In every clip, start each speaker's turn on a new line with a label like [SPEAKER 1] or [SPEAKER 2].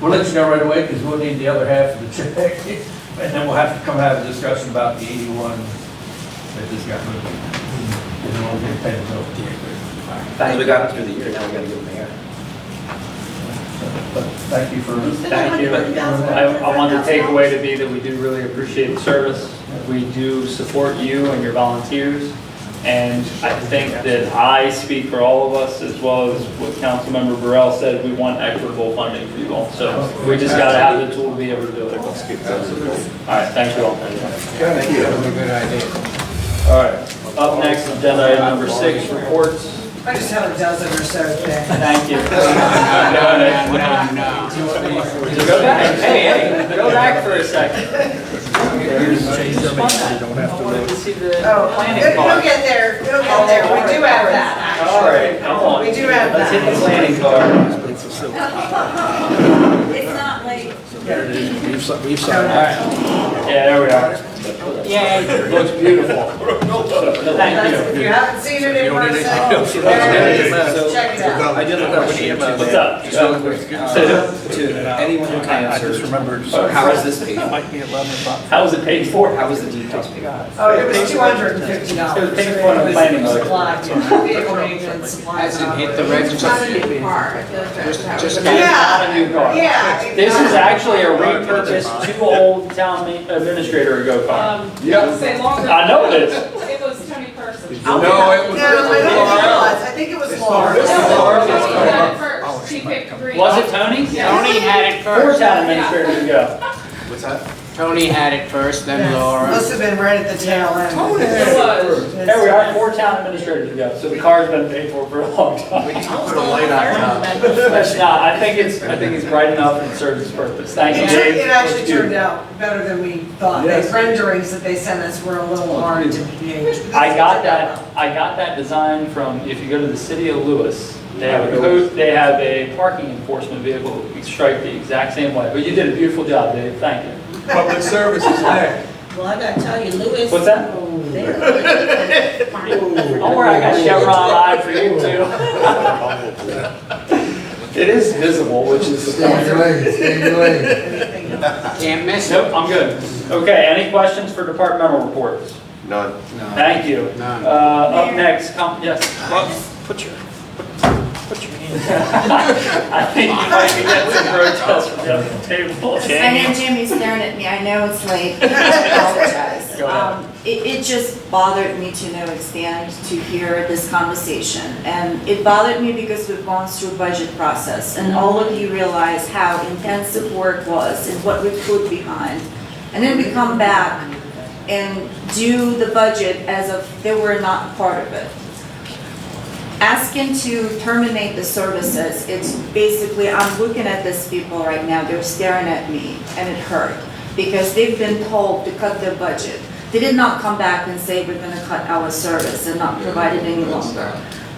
[SPEAKER 1] We'll let you know right away, because we'll need the other half of the check, and then we'll have to come have a discussion about the eighty-one that just got moved. And then we'll get paid over the year.
[SPEAKER 2] As we got through the year, now we gotta give them air.
[SPEAKER 1] But Thank you for.
[SPEAKER 3] You said
[SPEAKER 2] Thank you.
[SPEAKER 3] $150,000.
[SPEAKER 4] I, I want the takeaway to be that we do really appreciate the service. We do support you and your volunteers. And I think that I speak for all of us, as well as what Councilmember Burrell said, we want equitable funding for you all. So we just gotta have the tool to be able to do it. All right, thank you all.
[SPEAKER 5] Thank you. That was a good idea.
[SPEAKER 4] All right, up next, agenda item number six, reports.
[SPEAKER 6] I just had a dozen or so today.
[SPEAKER 4] Thank you. Go back,
[SPEAKER 2] no.
[SPEAKER 4] hey, hey, go back for a second.
[SPEAKER 2] I wanted to see the.
[SPEAKER 3] Oh,
[SPEAKER 2] Planning
[SPEAKER 3] it- it'll
[SPEAKER 2] card.
[SPEAKER 3] get there, it'll get there, we do have that,
[SPEAKER 4] All right, come on.
[SPEAKER 3] actually. we do have
[SPEAKER 4] Let's hit the
[SPEAKER 3] that.
[SPEAKER 4] planning card.
[SPEAKER 7] It's not late.
[SPEAKER 2] We've
[SPEAKER 4] All
[SPEAKER 2] signed.
[SPEAKER 4] right. Yeah, there we are.
[SPEAKER 2] Yay.
[SPEAKER 4] Looks beautiful. Thank
[SPEAKER 3] That's- If
[SPEAKER 4] you.
[SPEAKER 3] you haven't seen it in person, there it is. check it out.
[SPEAKER 2] I did look up what email.
[SPEAKER 4] What's up?
[SPEAKER 2] Just real quick, uh, To anyone who
[SPEAKER 5] I just
[SPEAKER 2] canceled,
[SPEAKER 5] remembered.
[SPEAKER 2] how is this paid?
[SPEAKER 5] Might be 11 o'clock.
[SPEAKER 4] How was it paid for?
[SPEAKER 2] How is the detox paid?
[SPEAKER 3] Oh, it was two hundred and fifty dollars.
[SPEAKER 4] It was paid for in the planning order.
[SPEAKER 3] Supply, you know, vehicle maintenance, supplies.
[SPEAKER 2] As in hit the register.
[SPEAKER 3] operations.
[SPEAKER 7] Not a new car. I feel like that's how it
[SPEAKER 2] Just-
[SPEAKER 7] is.
[SPEAKER 4] That is not a new car.
[SPEAKER 3] Yeah. it-
[SPEAKER 4] This is actually a repurposed, two old town ma- administrator ago car.
[SPEAKER 8] Um, I'll say longer.
[SPEAKER 4] I know this.
[SPEAKER 8] It was Tony Person.
[SPEAKER 2] No, it
[SPEAKER 3] No,
[SPEAKER 2] was.
[SPEAKER 3] I don't think it was, I think it was Laura.
[SPEAKER 8] No,
[SPEAKER 4] is Laura.
[SPEAKER 8] Tony had it first. She picked green.
[SPEAKER 4] Was it Tony?
[SPEAKER 8] Tony
[SPEAKER 9] had it
[SPEAKER 4] Four town administrators ago.
[SPEAKER 2] What's that?
[SPEAKER 9] Tony had it first, then Laura.
[SPEAKER 3] Must have been right at the tail end.
[SPEAKER 8] It was.
[SPEAKER 4] There we are, four town administrators ago. So the car's been paid for for a long time.
[SPEAKER 2] Put a light on it.
[SPEAKER 4] That's not, I think it's, I think it's bright enough and serves its purpose. Thank you,
[SPEAKER 3] It
[SPEAKER 4] Dave.
[SPEAKER 3] tur- it actually
[SPEAKER 4] Let's do
[SPEAKER 3] turned out better than we thought. The
[SPEAKER 1] Yes.
[SPEAKER 3] renderings that they sent us were a little hard to gauge. but
[SPEAKER 4] I got
[SPEAKER 3] that's-
[SPEAKER 4] that, I got that design from, if you go to the city of Lewis, they have a, code- they have a parking enforcement vehicle striped the exact same way, but you did a beautiful job, Dave, thank you.
[SPEAKER 5] Public service is next.
[SPEAKER 10] Well, I gotta tell you, Louis.
[SPEAKER 4] What's that? Don't worry, I got Chevron eye for you too. It is visible, which is the point.
[SPEAKER 3] Anything else?
[SPEAKER 9] Can't miss it.
[SPEAKER 4] Nope, I'm good. Okay, any questions for departmental reports?
[SPEAKER 5] None.
[SPEAKER 4] Thank you.
[SPEAKER 9] None.
[SPEAKER 4] Uh, up next, com, yes.
[SPEAKER 9] Put your, put your hand.
[SPEAKER 4] I think you might be getting some protests from the other table.
[SPEAKER 7] I know
[SPEAKER 4] Jamie.
[SPEAKER 7] Jimmy's staring at me, I know it's late, I apologize.
[SPEAKER 4] Go ahead.
[SPEAKER 7] Um, It, it just bothered me to no extent to hear this conversation. And it bothered me because we've gone through budget process and all of you realize how intensive work was and what we put behind. And then we come back and do the budget as if they were not part of it. asking to terminate the services, it's basically, I'm looking at these people right now, they're staring at me, and it hurt, because they've been told to cut their budget. They did not come back and say, we're gonna cut our service and not provide it any longer.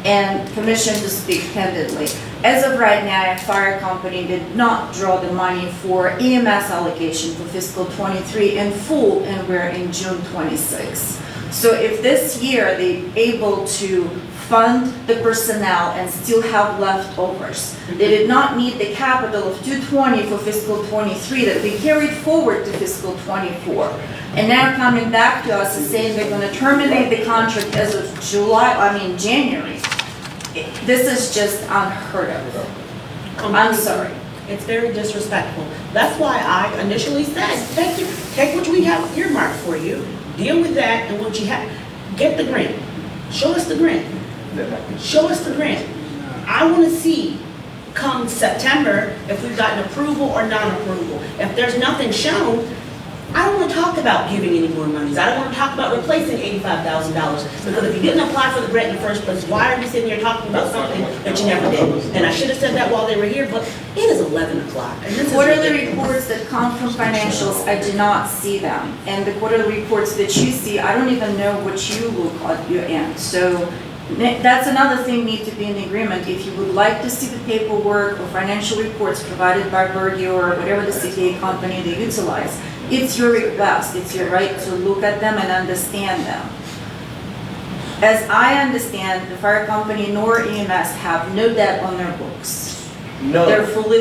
[SPEAKER 7] And permission to speak candidly. As of right now, fire company did not draw the money for EMS allocation for fiscal twenty-three in full, and we're in June twenty-six. So if this year they able to fund the personnel and still have leftovers, they did not need the capital of 220 for fiscal '23 that we carried forward to fiscal '24. And now coming back to us and saying they're gonna terminate the contract as of July, I mean, January. It- This is just unheard of.
[SPEAKER 10] Oh
[SPEAKER 7] I'm sorry.
[SPEAKER 10] It's very disrespectful. That's why I initially said, thank you, take what we have earmarked for you, deal with that and what you have, get the grant. Show us the grant. Show us the grant. I want to see come September if we've gotten approval or non-approval. If there's nothing shown, I don't want to talk about giving any more monies. I don't want to talk about replacing eighty-five thousand dollars. Because if you didn't apply for the grant in the first place, why are you sitting here talking about something that you never did? And I should have said that while they were here, but it is eleven o'clock and this is
[SPEAKER 7] Quarterly
[SPEAKER 10] ridiculous.
[SPEAKER 7] reports that come from financials, I do not see them. And the quarterly reports that you see, I don't even know what you look at your end. So ne- that's another thing need to be in agreement. If you would like to see the paperwork or financial reports provided by Verdio or whatever the CPA company they utilize, it's your request, it's your right to look at them and understand them. As I E understand, the fire company nor EMS have no debt on their books.
[SPEAKER 1] No.
[SPEAKER 7] They're fully